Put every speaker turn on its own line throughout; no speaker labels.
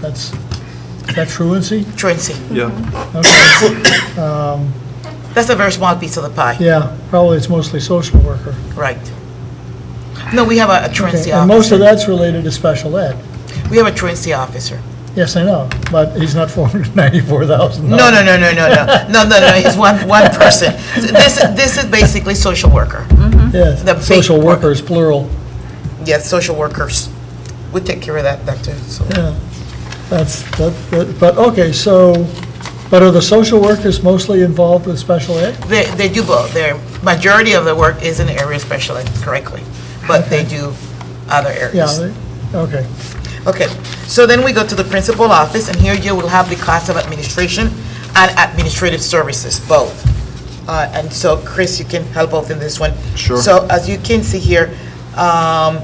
That's, is that truancy?
truancy.
Yeah,
That's a very small piece of the pie,
Yeah, probably it's mostly social worker.
right. No, we have a a
Okay,
truancy
And most of
officer.
that's related to special ed.
We have a truancy officer.
Yes, I know, but he's not four hundred ninety-four thousand.
No, no, no, no, no, no, no, no, no, it's one, one person. So This, this is basically social worker.
Mm-hmm.
the big
Yes, social
part.
workers, plural,
Yes, social workers. We take care of that, that too, so.
yeah. That's, that, that- but, okay, so, but are the social workers mostly involved with special ed?
They, they do both. Their, majority of the work is in the area of special ed, correctly, but they do other
Yeah,
areas.
they- okay,
Okay, so then we go to the principal office, and here you will have the cost of administration and administrative services, both. Uh, And so, Chris, you can help out in this one.
Sure.
So as you can see here, um,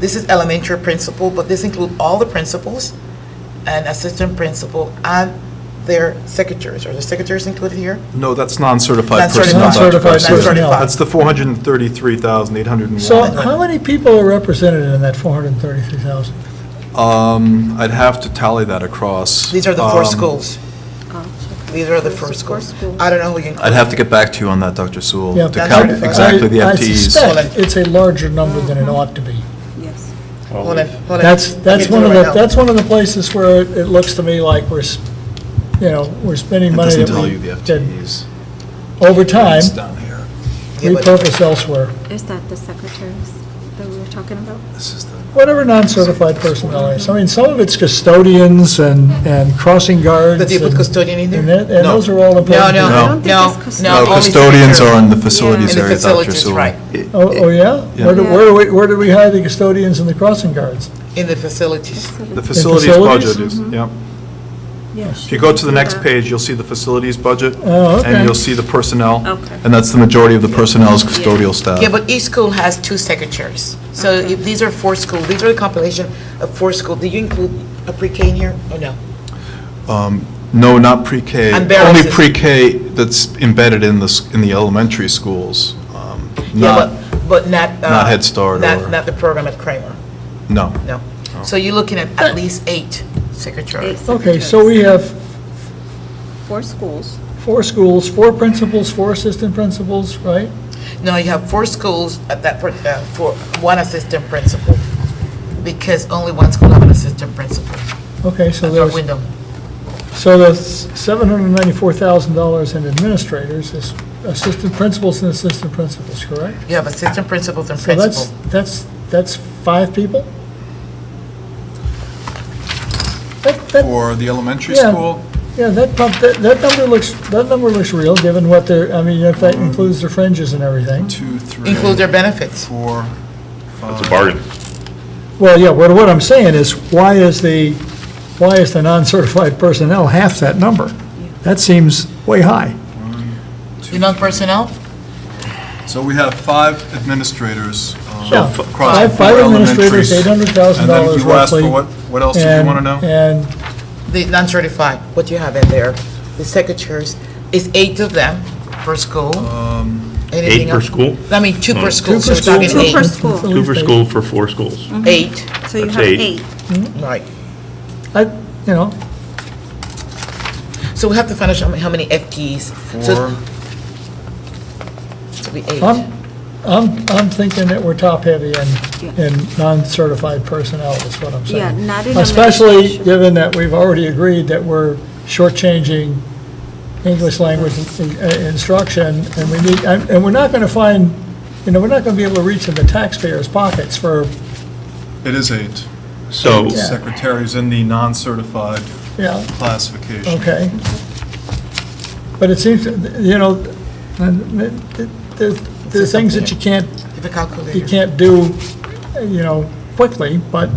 this is elementary principal, but this includes all the principals and assistant principal and their secretaries. Are the secretaries included here?
no, that's non-certified personnel.
Non-certified.
Dr.
Non-certified
Garcia.
personnel.
That's the 433,801.
so how many people are represented in that four hundred and thirty-three thousand?
I'd have to tally that across.
These are the four
Um,
schools. These are Oh, the four schools. I don't know who you include.
I'd have to get back to you on that, Dr. Sewell,
Yeah,
to count
That's right.
exactly the
I-
FTEs.
I suspect it's a larger number than it ought to be.
Yes.
Hold on, hold on.
That's,
I'll
that's
get to
one
it
of
right
the,
now.
that's one of the places where it it looks to me like we're, s- you know, we're spending
It
money
doesn't
that
tell
we
you the
did
FTEs.
over time,
It's down here.
Yeah, but-
repurpose elsewhere.
Is that the secretaries that we were talking about?
This is the,
Whatever non-certified personnel is. I mean, some of it's custodians and, and crossing guards.
Did you put
and-
custodian in there?
And that- and
No.
those are all important.
No,
No.
I
no,
don't think
no,
it's custodian.
no.
no,
only
custodians are in the
Yeah.
facilities
In the
area, Dr.
facilities,
Sewell.
right,
Oh, oh, yeah?
Yeah.
Where do, where do we, where did we hire the custodians and the crossing guards?
in the facilities.
The facilities
facilities?
budget is, yeah.
Yes.
If you go to the next page, you'll see the facilities budget.
Oh, okay.
And you'll see the personnel.
Okay.
And that's the majority of the personnel is custodial staff.
Yeah, but each school has two secretaries. So if these are four schools, these are the compilation of four schools. Do you include a pre-K in here or no?
No, not pre-K.
And barracks
Only
is-
pre-K that's embedded in the, s- in the elementary schools. um,
Yeah,
Not,
but But not. uh,
not Head Start
Not,
or- Oh.
not the program at Kramer,
no.
no. So you're looking at at least eight secretaries.
Okay, so we have
Four schools.
four schools, four principals, four assistant principals, right?
No, you have four schools at that, prin- uh, for one assistant principal, because only one school have an assistant principal,
Okay, so
for
there's.
Wyndham.
So the $794,000 in administrators is assistant principals and assistant principals, correct?
You have assistant principals and
So
principal.
that's, that's, that's five people? That, that,
For the elementary
Yeah. school? yeah, that, prob- that that number looks, that number looks real, given what they're, I mean, if that includes their fringes and everything.
two, three,
Include their benefits.
four.
It's a bargain.
Well, yeah, what, what I'm saying is, why is the, why is the non-certified personnel half that number? That seems way high.
You know personnel?
So we have five administrators. um,
Yeah,
across the
five-
four
five administrators,
elementaries.
$800,000
And then you asked
roughly,
for what, what else did you
And-
want to know?
And
The non-certified, what you have in there, the secretaries, is eight of them per school? Anything
Eight per
else?
school?
I mean, two per school, so
per
we're talking
school.
Two per
eight,
school.
Two per school for four schools.
eight,
So you
That's
have
eight.
eight.
right.
I, you know,
So we have to find out how many- how many FTEs. So
Four,
it'll be eight.
I'm, I'm, I'm thinking that we're top-heavy in,
Yeah.
in non-certified personnel, is what I'm saying.
Yeah, not in
Especially
administration.
given that we've already agreed that we're shortchanging English language in- in- instruction, and we need, and and we're not going to find, you know, we're not going to be able to reach in the taxpayers' pockets for,
it is eight.
So,
Secretaries in the non-certified
yeah,
classification.
okay. But it seems, you know, and the- the, the things that you can't
If a
you
calculator.
can't do, you know, quickly, but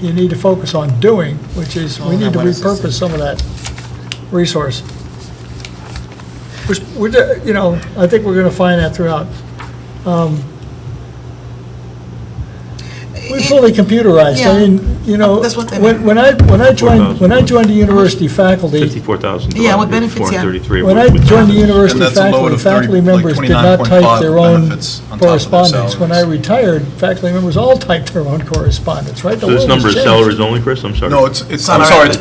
you need to focus on doing, which is, we need to repurpose some of that resource. Which, we're de- you know, I think we're going to find that throughout. Um, We fully computerized, I mean, you know,
That's what they
when when I, when I joined, when I joined the university faculty,
54,000.
Yeah, with benefits, yeah.
433.
when I joined the university
And that's a load
faculty,
of 30
faculty
like
members did not
29.5
type their own
benefits on top of their
correspondence. When I
salaries.
retired, faculty members all typed their own correspondence, right? The
So this
world has
number is
changed.
salaries only, Chris? I'm sorry.
No, it's, it's, I'm sorry, it's